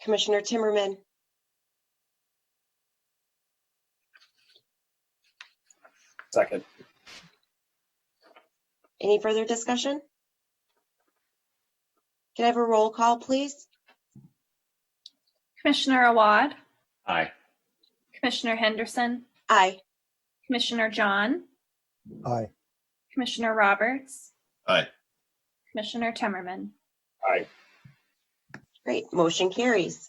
Commissioner Timmerman, Second. any further discussion? Can I have a roll call, please? Commissioner Awad, Aye. Commissioner Henderson, Aye. Commissioner John, Aye. Commissioner Roberts. Aye. Commissioner Timmerman. Aye. Great, motion carries.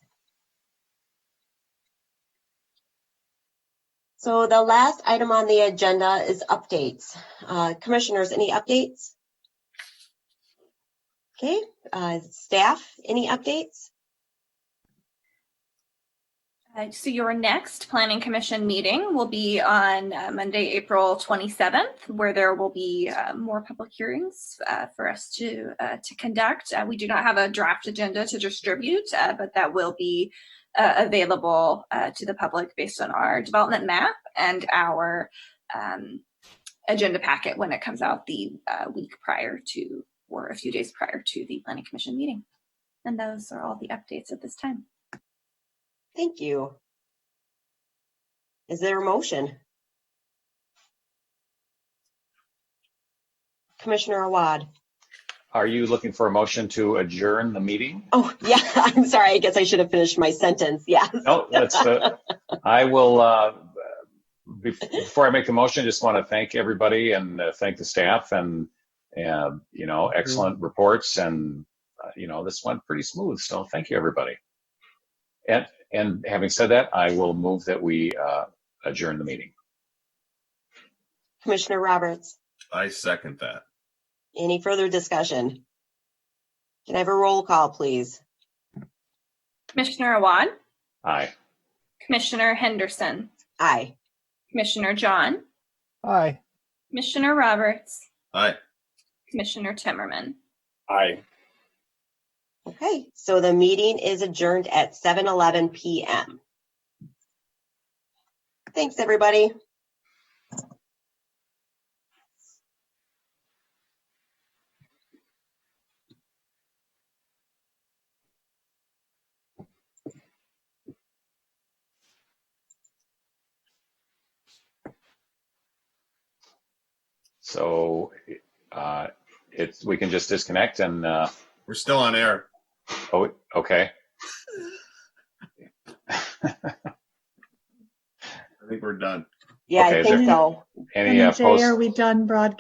So the last item on the agenda is updates. Uh, Commissioners, any updates? Okay, uh, staff, any updates? Uh, So your next Planning Commission meeting will be on uh, Monday, April 27th, where there will be uh, more public hearings uh, for us to, uh, to conduct. Uh, We do not have a draft agenda to distribute, uh, but that will be uh, available uh, to the public based on our development map and our um, agenda packet when it comes out the uh, week prior to, or a few days prior to the Planning Commission meeting. And those are all the updates at this time. Thank you. Is there a motion? Commissioner Awad? Are you looking for a motion to adjourn the meeting? Oh, yeah, I'm sorry. I guess I should have finished my sentence. Yes. No, that's, uh, I will, uh, be- before I make the motion, just want to thank everybody and uh, thank the staff and, uh, you know, excellent reports and, uh, you know, this went pretty smooth. So thank you, everybody. And, and having said that, I will move that we, uh, adjourn the meeting. Commissioner Roberts, I second that. any further discussion? Can I have a roll call, please? Commissioner Awad? Aye. Commissioner Henderson, Aye. Commissioner John, Aye. Commissioner Roberts, Aye. Commissioner Timmerman. Aye. Okay, so the meeting is adjourned at 7:11 PM. Thanks, everybody. So, uh, it's, we can just disconnect and, uh, We're still on air. Oh, okay. I think we're done. Yeah, I Okay, think there- so. Any And uh, Jay, post? uh, are we done broadcasting?